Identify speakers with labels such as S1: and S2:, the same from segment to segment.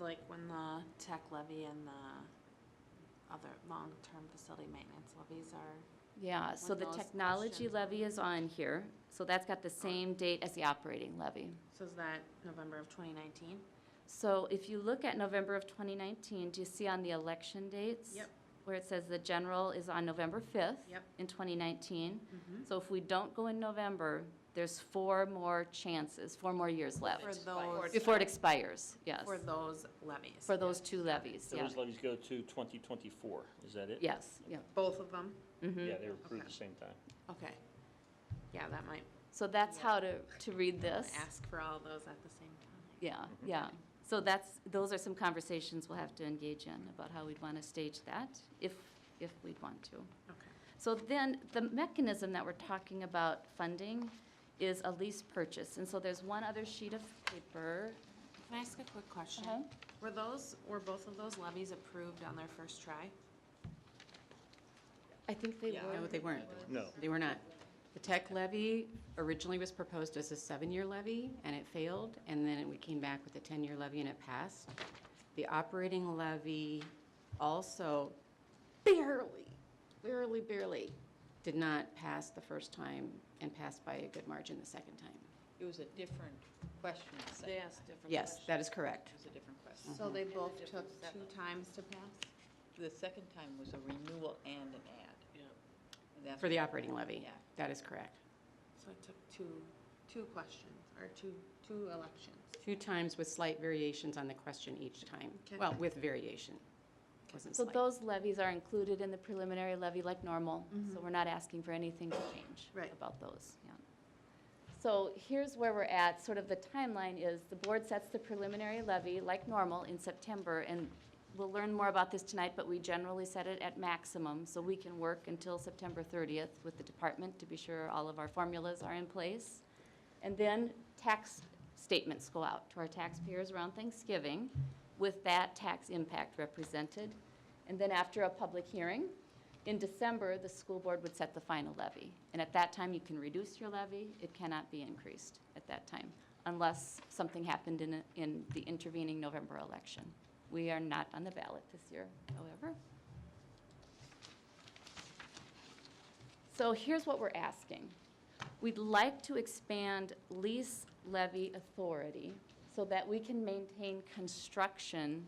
S1: like when the tech levy and the other long-term facility maintenance levies are,
S2: Yeah, so
S1: When
S2: the
S1: those
S2: technology
S1: questions-
S2: levy is on here, so that's got the same date as the operating levy.
S1: so is that November of twenty nineteen?
S2: So if you look at November of 2019, do you see on the election dates?
S1: Yep.
S2: Where it says the general is on November 5th?
S1: Yep.
S2: In 2019.
S1: Mhm.
S2: So if we don't go in November, there's four more chances, four more years left.
S1: For those,
S2: Before it expires, yes.
S1: for those levies?
S2: For those two levies, yeah.
S3: Those levies go to 2024, is that it?
S2: Yes, yeah.
S1: Both of them?
S2: mhm.
S3: Yeah, they were approved at
S1: Okay.
S3: the same time.
S1: Okay. Yeah, that might
S2: So that's how to, to read this.
S1: ask for all those at the same time.
S2: Yeah, yeah. So that's, those are some conversations we'll have to engage in about how we'd want to stage that, if, if we'd want to.
S1: Okay.
S2: So then, the mechanism that we're talking about funding is a lease purchase. And so there's one other sheet of paper.
S1: Can I ask a quick question?
S2: Uh-huh.
S1: Were those, were both of those levies approved on their first try?
S2: I think they
S1: Yeah.
S4: No,
S2: were.
S4: they weren't.
S3: No.
S4: They were not. The tech levy originally was proposed as a seven-year levy, and it failed, and then we came back with a 10-year levy, and it passed. The operating levy also barely, barely, barely did not pass the first time and passed by a good margin the second time.
S5: It was a different question. the second time.
S4: Yes, that is correct.
S5: It was a different question.
S2: Mm-hmm.
S1: So they both
S5: different
S1: took
S5: set.
S1: two times to pass?
S5: The second time was a renewal and an ad. And that's
S4: For the
S5: what-
S4: operating levy.
S5: Yeah.
S4: That is correct.
S1: So it took two, two questions, or two, two elections.
S4: Two times with slight variations on the question each time.
S1: Okay.
S4: Well, with variation. Wasn't
S2: So
S4: slight.
S2: those levies are included in the preliminary levy like normal, so
S1: Mhm.
S2: we're not asking for anything to change
S1: Right.
S2: about those, yeah. So here's where we're at, sort of the timeline is, the board sets the preliminary levy like normal in September, and we'll learn more about this tonight, but we generally set it at maximum, so we can work until September 30th with the department to be sure all of our formulas are in place. And then tax statements go out to our taxpayers around Thanksgiving with that tax impact represented. And then after a public hearing, in December, the school board would set the final levy. And at that time, you can reduce your levy. It cannot be increased at that time unless something happened in, a- in the intervening November election. We are not on the ballot this year, however. So here's what we're asking. We'd like to expand lease levy authority so that we can maintain construction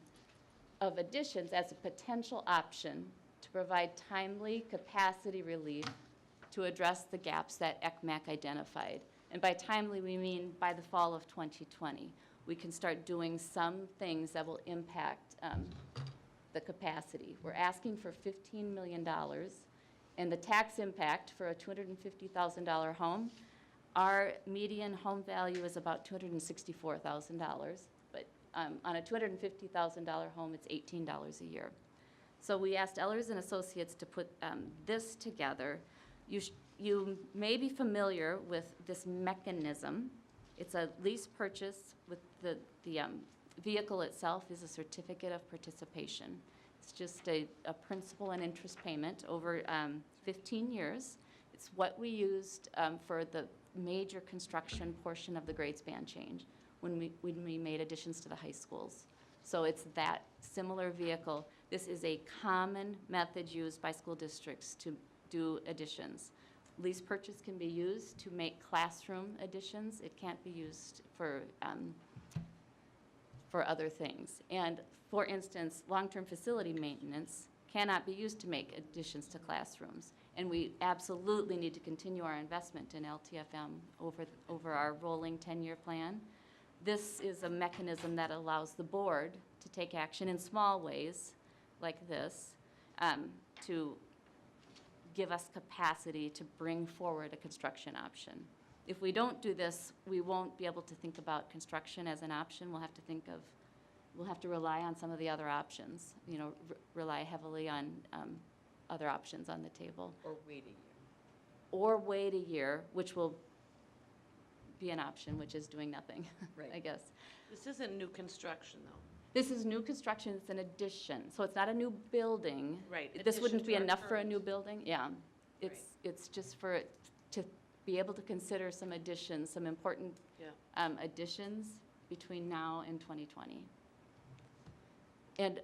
S2: of additions as a potential option to provide timely capacity relief to address the gaps that ECMAC identified. And by timely, we mean by the fall of 2020. We can start doing some things that will impact um, the capacity. We're asking for $15 million, and the tax impact for a $250,000 home, our median home value is about $264,000, but um, on a $250,000 home, it's $18 a year. So we asked Ellers and Associates to put um, this together. You, sh- you may be familiar with this mechanism. It's a lease purchase with the, the um, vehicle itself is a certificate of participation. It's just a, a principal and interest payment over um, 15 years. It's what we used um, for the major construction portion of the grade span change when we, when we made additions to the high schools. So it's that similar vehicle. This is a common method used by school districts to do additions. Lease purchase can be used to make classroom additions. It can't be used for, um, for other things. And for instance, long-term facility maintenance cannot be used to make additions to classrooms. And we absolutely need to continue our investment in LTFM over, over our rolling 10-year plan. This is a mechanism that allows the board to take action in small ways, like this, um, to give us capacity to bring forward a construction option. If we don't do this, we won't be able to think about construction as an option. We'll have to think of, we'll have to rely on some of the other options, you know, re- rely heavily on um, other options on the table.
S5: Or wait a year.
S2: Or wait a year, which will be an option, which is doing nothing, I
S5: Right.
S2: guess.
S6: This isn't new construction, though.
S2: This is new construction, it's an addition, so it's not a new building.
S6: Right,
S2: This
S6: addition
S2: wouldn't be
S6: to our
S2: enough for a
S6: current.
S2: new building, yeah. It's, it's just for, it to be able to consider some additions, some important
S6: Yeah.
S2: um, additions between now and 2020. And